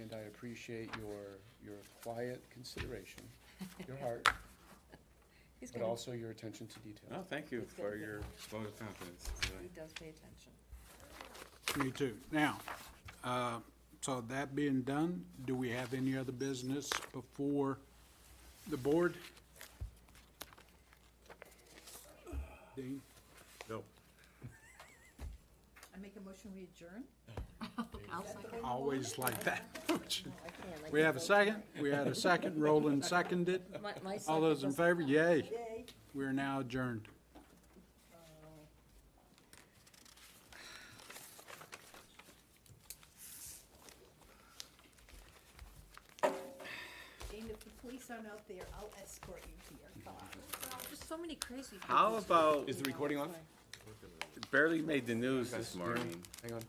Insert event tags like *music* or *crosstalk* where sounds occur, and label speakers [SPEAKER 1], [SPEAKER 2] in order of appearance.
[SPEAKER 1] and I appreciate your, your quiet consideration, your heart,
[SPEAKER 2] He's
[SPEAKER 1] but
[SPEAKER 2] gonna,
[SPEAKER 1] also your attention to
[SPEAKER 3] No,
[SPEAKER 1] detail.
[SPEAKER 3] Oh, thank you
[SPEAKER 2] It's good.
[SPEAKER 3] for your vote of confidence.
[SPEAKER 2] he does pay attention.
[SPEAKER 4] Me too. Now, uh, so that being done, do we have any other business before the board? Dean?
[SPEAKER 3] Nope.
[SPEAKER 5] I make a motion, we adjourn?
[SPEAKER 4] Always like that. *laughs* We have a second? We had a second. Roland seconded.
[SPEAKER 1] *laughs*
[SPEAKER 2] My, my
[SPEAKER 4] All
[SPEAKER 2] son
[SPEAKER 4] those in
[SPEAKER 2] does-
[SPEAKER 4] favor? Yay. We're now adjourned.
[SPEAKER 5] And if the police aren't out there, I'll escort you here. Come on.
[SPEAKER 2] There's so many crazy people. Oh,
[SPEAKER 3] How about,
[SPEAKER 1] Is the recording on?
[SPEAKER 3] barely made the news this morning,
[SPEAKER 1] Hang on.